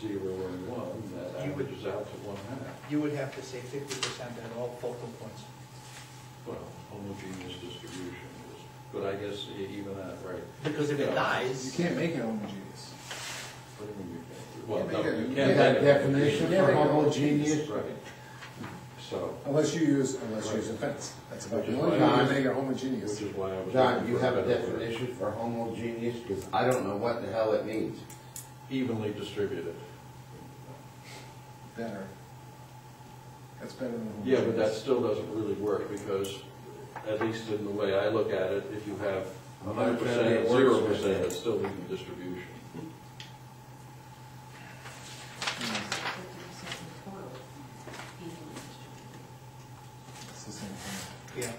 zero and one, that You would- averages out to one half. You would have to say fifty percent at all focal points. Well, homogeneous distribution is, but I guess e- even that, right? Because if Yeah. it You dies, can't make it homogeneous. What do you mean you can't? You Well, make no, it- you you can't. have make it definition for homogeneous. homogeneous. Right. So, Unless you use, unless you use a fence. That's about the only way you make it homogeneous. which is why I was. John, looking you for have a better word. definition for homogeneous, because I don't know what the hell it means. Evenly distributed. Better. That's better than homogeneous. Yeah, but that still doesn't really work, because at least in the way I look at it, if you have I'm hundred not sure percent and it works zero with percent, that. it's still even distribution. Mm, fifty percent in total, evenly distributed. It's the same thing. yeah,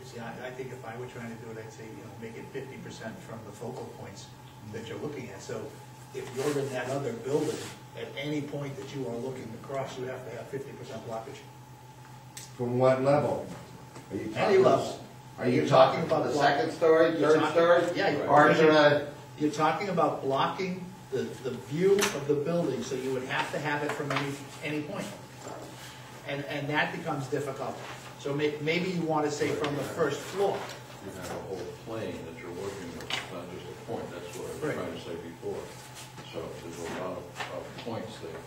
You see, I, I think if I were trying to do it, I'd say, you know, make it fifty percent from the focal points that you're looking at. So if you're in that other building, at any point that you are looking across, you have to have fifty percent blockage. From what level? Are you Any talking- level. Are you You're talking talking about the about- second story, You're third talking- story? yeah, you're- Or is it a, You're talking about blocking the, the view of the building, so you would have to have it from any, any point. And, and that becomes difficult. So may, maybe you want to say from the first floor. You have a whole plane that you're working with, not just a point, that's what I was Right. trying to say before. So there's a lot of, of points there.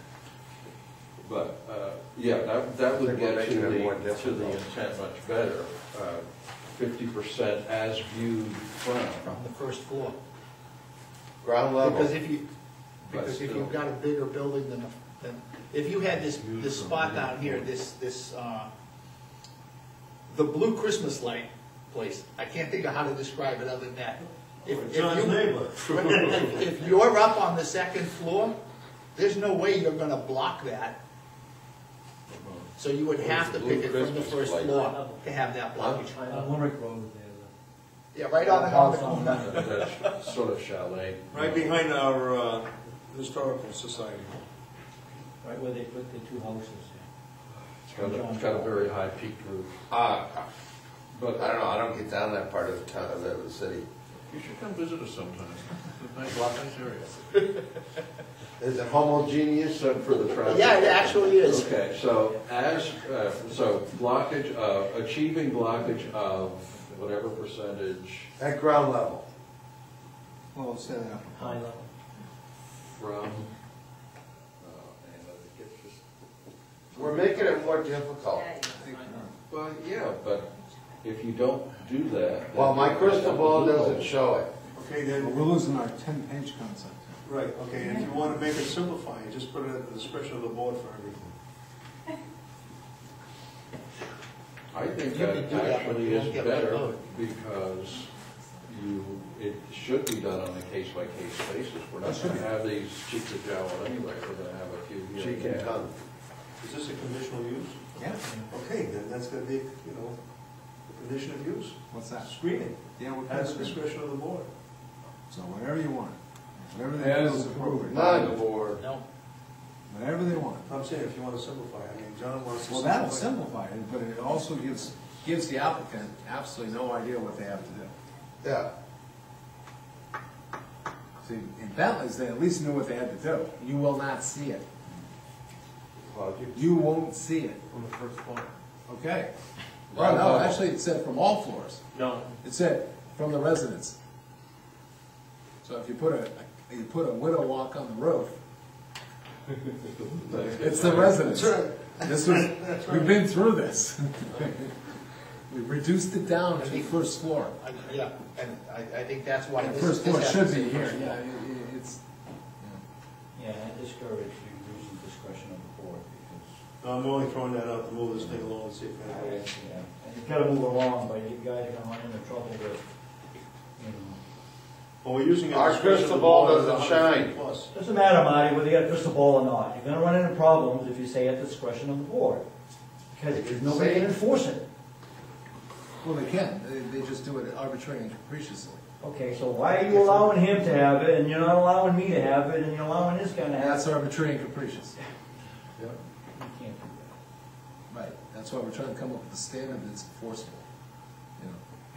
But, uh, yeah, that, that would Think we're get to making it the, more to the difficult. intent much better. uh, Fifty percent as viewed from, From the first floor. ground Because level? if you, because if you've got a bigger building than, than, if you had this, this spot down here, this, this, uh, the blue Christmas light place, I can't think of how to describe it other than that. If- if you- If you're up on the second floor, there's no way you're gonna block that, so you would have to pick it from the first floor to have that blockage. On Limerick Road there, Yeah, right on the, on the corner. that's sort of chalet. Right behind our uh, historical society. the- right where they put the two houses. It's got a, it's got a very high peaked roof, Uh, but I don't know, I don't get down that part of the town, of the city. You should come visit us sometime. Nice, nice area. Is it homogeneous? Except for the traffic. Yeah, it actually is. Okay, so as, uh, so blockage of, achieving blockage of whatever percentage At ground level? Well, uh, say that. High level. from, oh, man, it gets just, We're making it more difficult. well, yeah, but if you don't do that. Well, my crystal ball doesn't show it. Okay, Well, then, We're losing our ten-page concept. right, okay, if you want to make it simplify, you just put it at the discretion of the board for everything. I think You can that do that, but actually you won't is get that better vote. because you, it should be done on a case-by-case basis. We're not gonna have these cheek to jowl anyway, we're gonna have a few here She and can there. come. Is this a conditional use? Yeah. Okay, then that's going to be, you know, a condition of use. What's that? Screening, Yeah, we're at past the it. discretion of the board. So whatever you want, whatever they feel As is appropriate, None. Or No, whatever they want. I'm saying if you want to simplify, I mean, John wants to. Well, that'll simplify it, but it also gives, gives the applicant absolutely no idea what they have to do. Yeah. See, in Bentley's, they at least knew what they had to do. You will not see it. You won't see it. From the first floor. Okay. Well, no, actually, it said from all floors. No. It said from the residence. So if you put a, you put a widow walk on the roof, it's the residence. This was, we've been through this. We reduced it down to the first floor. I, yeah, and I, I think that's why The this. first this floor should happens. be here, yeah, it- it- it's, Yeah, I discourage you using discretion of the board because, No, I'm only throwing that out to move this thing along and see if anybody. yeah, and you've got to move along, but you guys are going to run into trouble with, you know. Well, we're using. it at Our the discretion of crystal the ball board, doesn't 100 shine. Plus. Doesn't matter, Marty, whether you got a crystal ball or not, you're going to run into problems if you say at the discretion of the board. Because nobody can enforce it. well, they can, they, they just do it arbitrarily and capriciously. Okay, so why are you allowing him to have it, and you're not allowing me to have it, and you're allowing this guy to have That's it? arbitrary and capricious. Yeah. You can't do that. Right, that's why we're trying to come up with a standard that's enforceable.